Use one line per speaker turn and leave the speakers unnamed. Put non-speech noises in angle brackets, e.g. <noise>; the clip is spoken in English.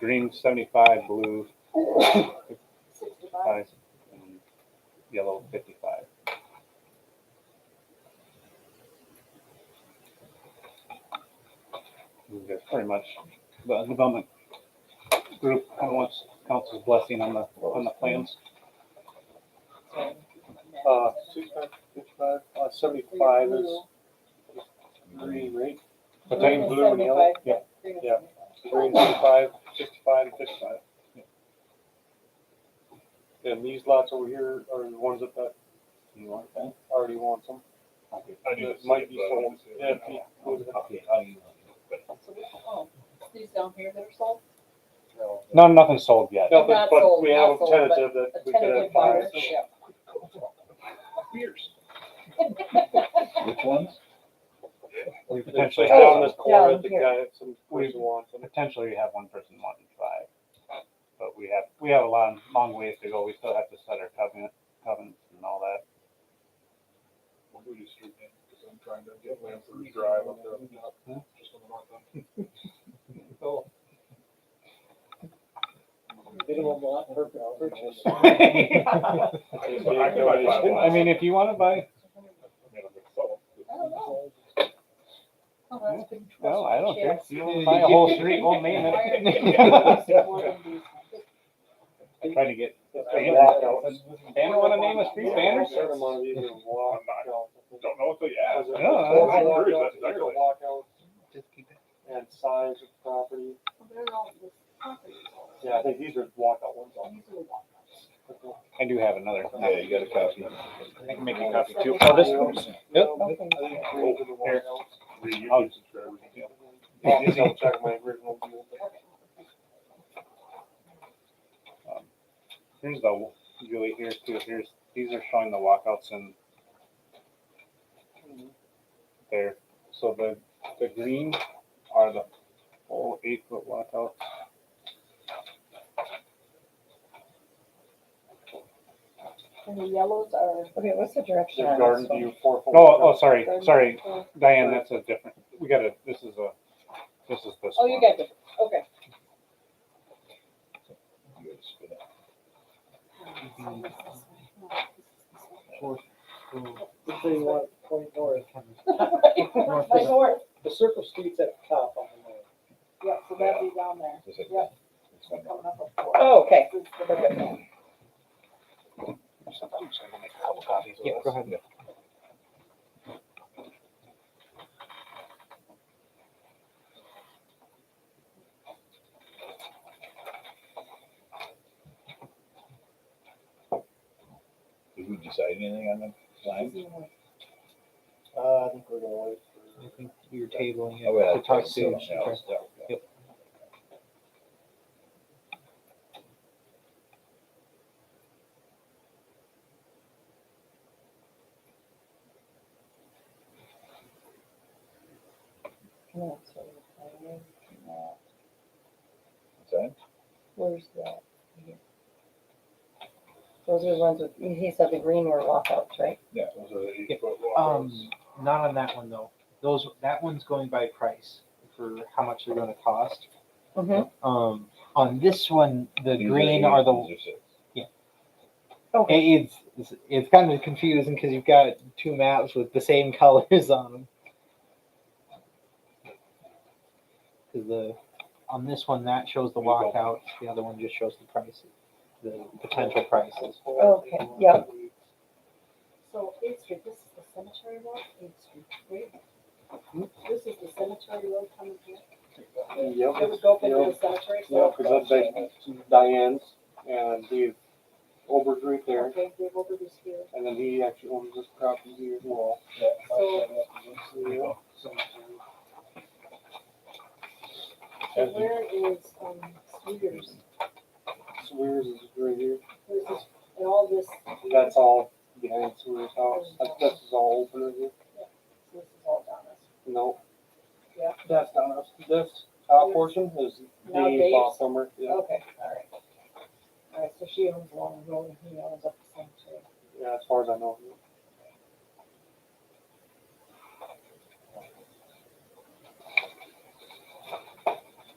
green seventy-five, blue
Sixty-five.
five, and yellow fifty-five. And That's pretty much the development group kind of wants council's blessing on the, on the plans.
Uh, sixty-five, fifty-five, uh, seventy-five is green, right?
But
Green,
then,
blue, and yellow,
yeah,
Green and
yeah.
seventy-five.
green, seventy-five, sixty-five, and fifty-five. And these lots over here are the ones that that
you want that?
already wants them.
Okay.
That might be sold, yeah, if you go to the-
Okay, I'll email you.
So we- oh, These down here that are sold,
No, nothing sold yet.
No, but,
Not
but
sold,
we
not
have a
sold, but
tentative that
a
we could have
tentative buyer,
five.
yeah. <laughs>
Years.
Which ones?
We potentially
Potentially
have
down
some,
this corner,
Down
the
here.
guy, some person wants them.
potentially have one person wanting five. But we have, we have a long, long ways to go. We still have to set our covenant, covenants and all that.
What would you street name? Because I'm trying to get Lampers Drive up there on the top, just on the north end. I can buy five
I mean, if you wanna buy,
I mean, I'm gonna sell them.
I don't know. Oh, that's good.
well, I don't care.
Yes.
You wanna buy a whole street, whole main.
Why are these
I'm
<laughs>
ones more than these ones?
trying to get.
That's a walkout.
Banner, Banner wanna name a street banner?
A certain amount of these are walkouts.
Don't know until you ask.
Because
Yeah,
there's
I
agree,
walkouts,
that's
there's a
exactly.
walkout And size of property.
Well, They're all the properties.
Yeah, I think these are walkout ones.
These are the ones.
I do have another.
Yeah, you got a copy.
I can make you a copy too.
Oh, this
one's-
Yep.
I think these are the walkouts.
Three
I'll-
YouTube subscribers.
I'll just double check my original deal.
Um, Here's the, Julie, here's two, here's, these are showing the walkouts and there. So the, the green are the full eight foot walkouts.
<laughs> And the yellows are.
Okay, what's the
The
direction on
garden
this one?
view four. four-
Oh, oh, sorry,
garden
sorry,
control.
Diane, that's a different, we gotta, this is a, this is this
Oh, you
one.
got it, okay.
Mm-hmm.
<laughs>
So you want point north.
Right, My door,
The circle street's at the top on the north.
yeah, so that'd be down there, yeah, so coming up a four.
Oh, okay.
This is the bigger
Yeah, go ahead.
Did we decide anything on the line?
one.
Uh, I think we're gonna wait
I
for.
think we were tabling
Oh, well,
it to talk
that's
to.
something else.
Yep.
No, it's over there. No,
Is that-
Where's that? Those are the ones with, he said the green were walkouts, right?
Yeah.
Those are the
Yeah,
eight foot walkouts.
Um, not on that one though. Those, that one's going by price for how much they're gonna cost.
Mm-hmm.
Um, on this one, the
These
green
eight,
are the,
these are six.
it- it's, it's, it's kind of confusing because you've got two maps with the same <laughs> colors on them. Cause the, on this one, that shows the walkout, the other one just shows the prices, the potential prices.
Okay, yep.
So Eighth Street, this is the cemetery road, Eighth Street, right? This is the cemetery road coming here,
Yep.
it would go up into
yep.
the cemetery,
Yeah,
so.
because that's like Diane's and Dave Ober's right there,
Okay, Dave Wilbur is here,
and then he actually owns this property here as well.
So-
Yeah.
so where is, um, Sweeters,
Swears is right here.
where's this, and all this.
That's all behind Swears' house. That- This is all open right here.
This is all down this.
No.
Yeah.
That's not us. This top portion is
Now
Dave's
Dave's.
off somewhere. Yeah,
Okay, all right. All right, so she owns Long Road and he owns up the cemetery.
yeah, as far as I know.